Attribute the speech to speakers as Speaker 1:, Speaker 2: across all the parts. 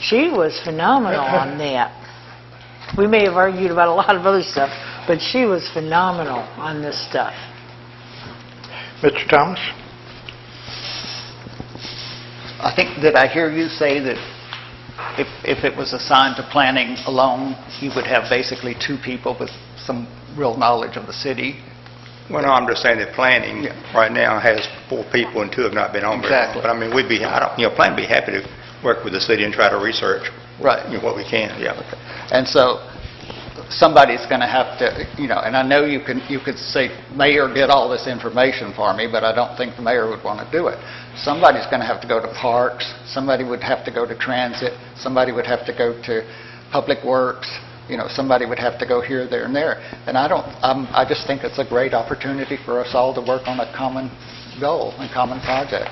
Speaker 1: She was phenomenal on that. We may have argued about a lot of other stuff, but she was phenomenal on this stuff.
Speaker 2: Mr. Thomas?
Speaker 3: I think, did I hear you say that if, if it was assigned to planning alone, you would have basically two people with some real knowledge of the city?
Speaker 4: Well, no, I'm just saying that planning
Speaker 3: Yeah.
Speaker 4: right now has four people and two have not been on very long.
Speaker 3: Exactly.
Speaker 4: But I mean, we'd be, I don't, you know, plan would be happy to work with the city and try to research,
Speaker 3: Right.
Speaker 4: you know, what we can, yeah.
Speaker 3: And so somebody's going to have to, you know, and I know you can, you could say, "Mayor did all this information for me," but I don't think the mayor would want to do it. Somebody's going to have to go to parks, somebody would have to go to transit, somebody would have to go to public works, you know, somebody would have to go here, there, and there. And I don't, um, I just think it's a great opportunity for us all to work on a common goal and common project.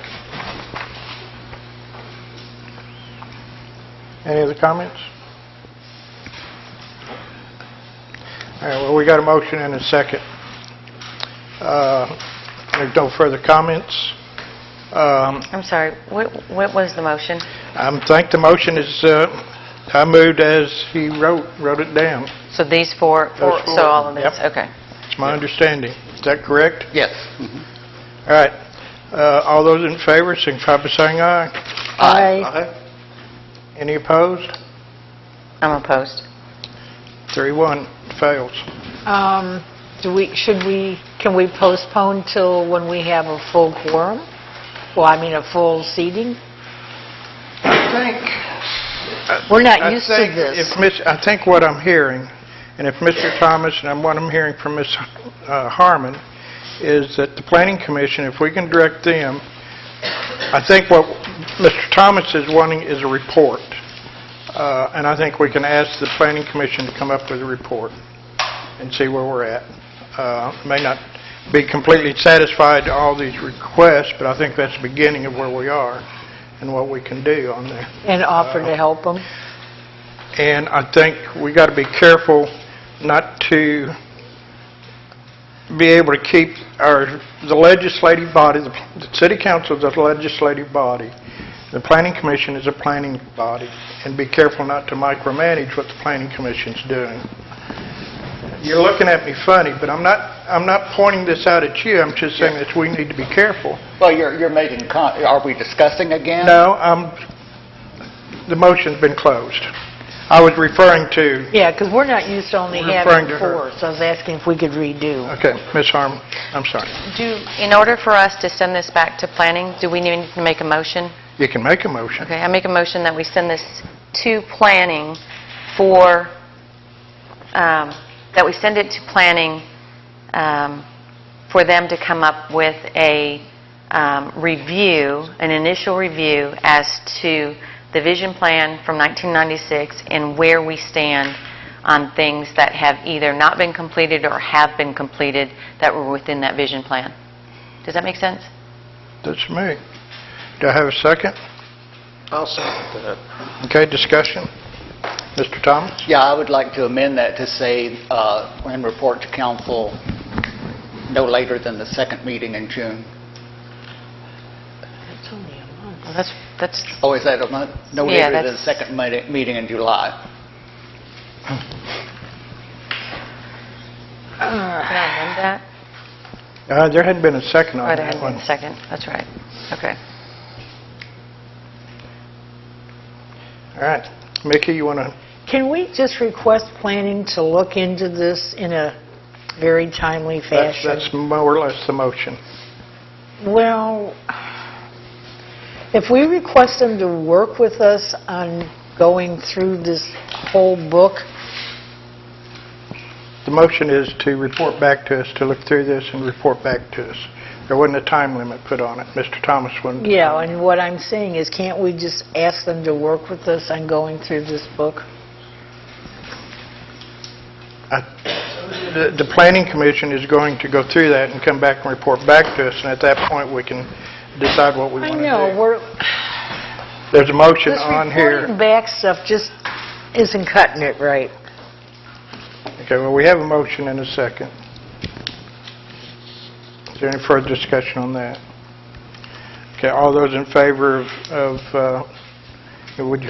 Speaker 2: Any other comments? All right, well, we got a motion and a second. Uh, There's no further comments. Um,
Speaker 5: I'm sorry, what what was the motion?
Speaker 2: I think the motion is, uh, I moved as he wrote, wrote it down.
Speaker 5: So these four, four-
Speaker 2: Those four,
Speaker 5: so all of these,
Speaker 2: yep.
Speaker 5: okay.
Speaker 2: It's my understanding. Is that correct?
Speaker 3: Yes.
Speaker 2: All right. Uh, All those in favor, signify by saying aye.
Speaker 1: I
Speaker 2: Any opposed?
Speaker 5: I'm opposed.
Speaker 2: Three, one, fails.
Speaker 1: Um, do we, should we, can we postpone till when we have a full quorum? Well, I mean, a full seating? We're not
Speaker 2: I
Speaker 1: used to
Speaker 2: think
Speaker 1: this.
Speaker 2: if Miss- I think what I'm hearing, and if Mr. Thomas, and I'm- what I'm hearing from Ms. uh, Harmon, is that the Planning Commission, if we can direct them, I think what Mr. Thomas is wanting is a report, Uh, and I think we can ask the Planning Commission to come up with a report and see where we're at. Uh, May not be completely satisfied to all these requests, but I think that's the beginning of where we are and what we can do on there.
Speaker 1: And offer
Speaker 2: Uh-huh.
Speaker 1: to help them?
Speaker 2: And I think we got to be careful not to be able to keep our, the legislative body, the the city council is a legislative body, the planning commission is a planning body, and be careful not to micromanage what the planning commission's doing. You're looking at me funny, but I'm not, I'm not pointing this out at you, I'm just saying that we need to be careful.
Speaker 3: Well, you're, you're making, con- are we discussing again?
Speaker 2: No, I'm, the motion's been closed. I was referring to
Speaker 1: Yeah, because we're not used to only
Speaker 2: We're referring
Speaker 1: having
Speaker 2: to her. Uh-huh.
Speaker 1: four, so I was asking if we could redo.
Speaker 2: Okay, Ms. Harmon, I'm sorry.
Speaker 5: Do, in order for us to send this back to planning, do we need to make a motion?
Speaker 2: You can make a motion.
Speaker 5: Okay, I make a motion that we send this to planning for, um, that we send it to planning um, for them to come up with a um, review, an initial review as to the vision plan from 1996 and where we stand on things that have either not been completed or have been completed that were within that vision plan. Does that make sense?
Speaker 2: That's me. Do I have a second?
Speaker 3: I'll second that.
Speaker 2: Okay, discussion. Mr. Thomas?
Speaker 3: Yeah, I would like to amend that to say, uh, and report to council no later than the second meeting in June.
Speaker 1: That's only a month.
Speaker 5: Well, That's, that's
Speaker 3: Oh, is that a month? No
Speaker 5: Yeah,
Speaker 3: later than the
Speaker 5: that's-
Speaker 3: second meeti- meeting in July.
Speaker 5: Can I amend that?
Speaker 2: Uh, There hadn't been a second
Speaker 5: Oh,
Speaker 2: on
Speaker 5: there
Speaker 2: that
Speaker 5: hadn't been
Speaker 2: one.
Speaker 5: a second, that's right. Okay.
Speaker 2: All right. Mickey, you want to,
Speaker 1: Can we just request planning to look into this in a very timely
Speaker 2: that's
Speaker 1: fashion?
Speaker 2: that's more or less the motion.
Speaker 1: Well, if we request them to work with us on going through this whole book,
Speaker 2: The motion is to report back to us, to look through this and report back to us. There wasn't a time limit put on it. Mr. Thomas wouldn't.
Speaker 1: yeah, and what I'm saying is, can't we just ask them to work with us on going through this book?
Speaker 2: I- The the planning commission is going to go through that and come back and report back to us, and at that point, we can decide what we
Speaker 1: I
Speaker 2: want to do.
Speaker 1: know, we're,
Speaker 2: There's a motion
Speaker 1: this
Speaker 2: on
Speaker 1: reporting
Speaker 2: here.
Speaker 1: back stuff just isn't cutting it right.
Speaker 2: Okay, well, we have a motion and a second. Is there any further discussion on that? Okay, all those in favor of- of, uh, would you